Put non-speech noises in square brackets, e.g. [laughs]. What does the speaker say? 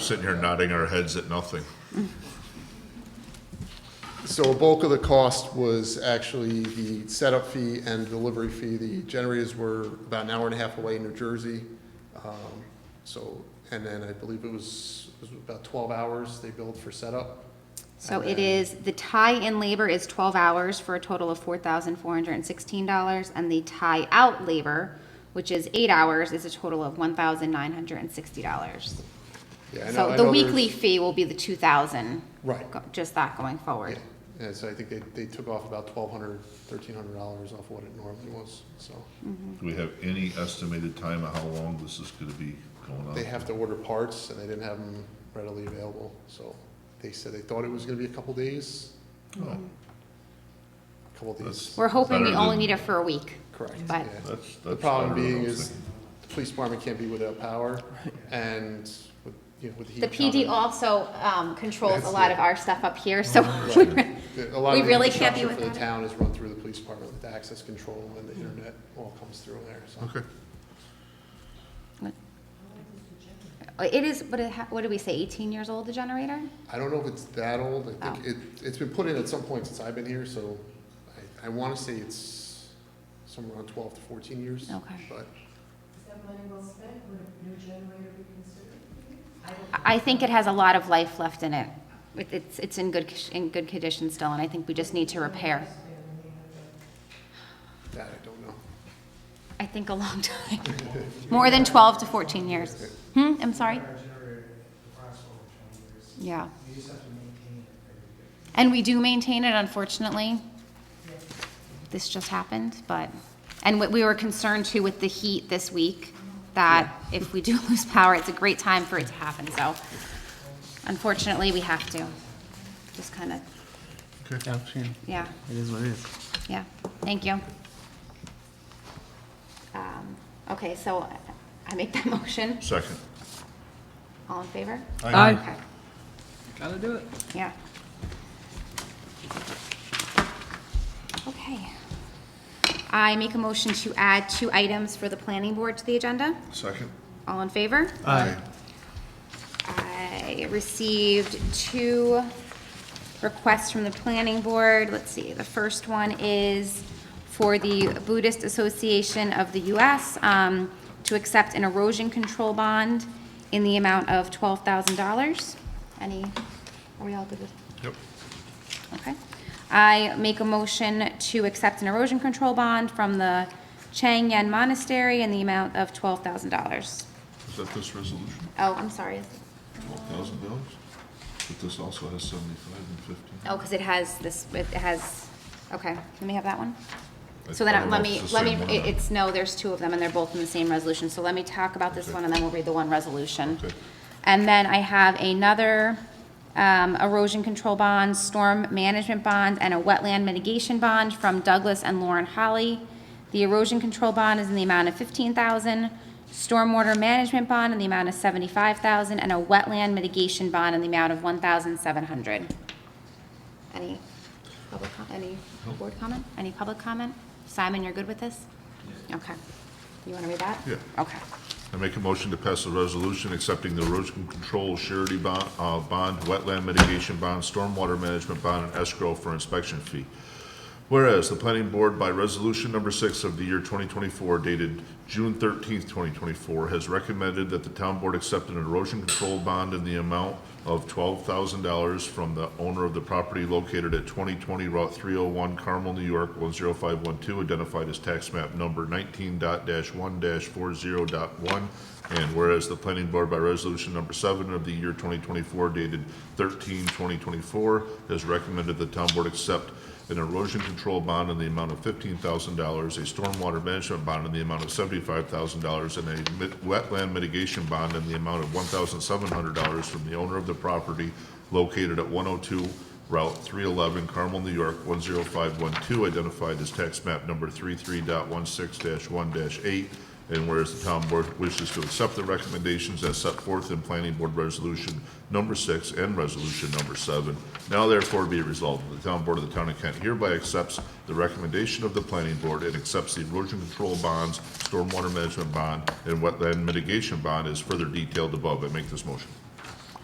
sitting here nodding our heads at nothing. So a bulk of the cost was actually the setup fee and delivery fee. The generators were about an hour and a half away in New Jersey. Um, So, and then I believe it was, it was about 12 hours they billed for setup. So And it then- is, the tie-in labor is twelve hours for a total of four thousand four hundred and sixteen dollars, and the tie-out labor, which is eight hours, is a total of one thousand nine hundred and sixty dollars. Yeah, I know- So I the know there's- weekly fee will be the two thousand. Right. Just that going Yeah, forward. and so I think they, they took off about 1,200, 1,300 dollars off what it normally was, so. Mm-hmm. Do we have any estimated time of how long this is gonna be going on? They have to order parts and they didn't have them readily available, so they said they thought it was gonna be a couple days, Oh, couple days, That's- We're hoping we Better only than- need it for a week. correct, But- yeah. That's, that's. The problem better than I being was is, thinking. the police department can't be without power, and with, you know, with the heat. The PD coming, also, um, controls a That's lot it. Oh, of our stuff up here, so [laughs] Right. the- A lot we of the really can't be infrastructure for the without town is run through the police department with access control and the internet all comes through there, so. Okay. it is, but it, ha- what do we say, eighteen years old, the generator? I don't know if it's that old, I think Oh. it, it's been put in at some point since I've been here, so I, I wanna say it's somewhere around twelve to fourteen years. Okay. But I think it has a lot of life left in it. It- It's, it's in good, in good condition still, and I think we just need to repair. that I don't know. I think a long [laughs] time, more than 12 to 14 years. Hmm, I'm sorry? Yeah. And we do maintain it, unfortunately. This just happened, but, and what we were concerned too with the heat this week, that if we do [laughs] lose power, it's a great time for it to happen, so unfortunately, we have to. Just kind of, Yeah, sure. yeah. It is what it is. Yeah, thank you. Um, Okay, so I make that [laughs] motion. Second. All in favor? Aye. Okay, Gotta do it. yeah. Okay. I make a motion to add two items for the planning board to the agenda. Second. All in favor? Aye. I received two requests from the planning board. Let's see, the first one is for the Buddhist Association of the U.S. um, to accept an erosion control bond in the amount of $12,000. Any, are we all good with? Yep. Okay. I make a motion to accept an erosion control bond from the Chang Yen Monastery in the amount of $12,000. Is that this resolution? Oh, I'm sorry. Twelve thousand dollars? But this also has seventy-five and fifteen. Oh, because it has this, it has, okay, let me have that one. I- So I then, don't let know if me, it's the let me, same one or it- not. it's, no, there's two of them, and they're both in the same resolution, so let me talk about this Okay. one, and then we'll read the one resolution. Okay. And then I have another um, erosion control bond, storm management bond, and a wetland mitigation bond from Douglas and Lauren Holly. The erosion control bond is in the amount of fifteen thousand, stormwater management bond in the amount of seventy-five thousand, and a wetland mitigation bond in the amount of one thousand seven hundred. Any public, com- any board comment? Any public comment? Simon, you're good with this? Okay. You want to read that? Yeah. Okay. I make a motion to pass a resolution accepting the erosion control surety bond, uh, bond, wetland mitigation bond, stormwater management bond, and escrow for inspection fee. Whereas the planning board by resolution number six of the year twenty twenty-four dated June thirteenth, twenty twenty-four has recommended that the town board accept an erosion control bond in the amount of twelve thousand dollars from the owner of the property located at twenty twenty Route three oh one Carmel, New York, one zero five one two, identified as tax map number nineteen dot dash one dash four zero dot one. And whereas the planning board by resolution number seven of the year twenty twenty-four dated 13 2024 has recommended the town board accept an erosion control bond in the amount of fifteen thousand dollars, a stormwater management bond in the amount of seventy-five thousand dollars, and a mit- wetland mitigation bond in the amount of one thousand seven hundred dollars from the owner of the property located at one oh two Route three eleven, Carmel, New York, one zero five one two, identified as tax map number 3316 one eight. And whereas the town board wishes to accept the recommendations as set forth in planning board resolution number six and resolution number seven, now therefore be resolved, that the town board of the town of Kent hereby accepts the recommendation of the planning board and accepts the erosion control bonds, stormwater management bond, and wetland mitigation bond as further detailed above. I make this motion.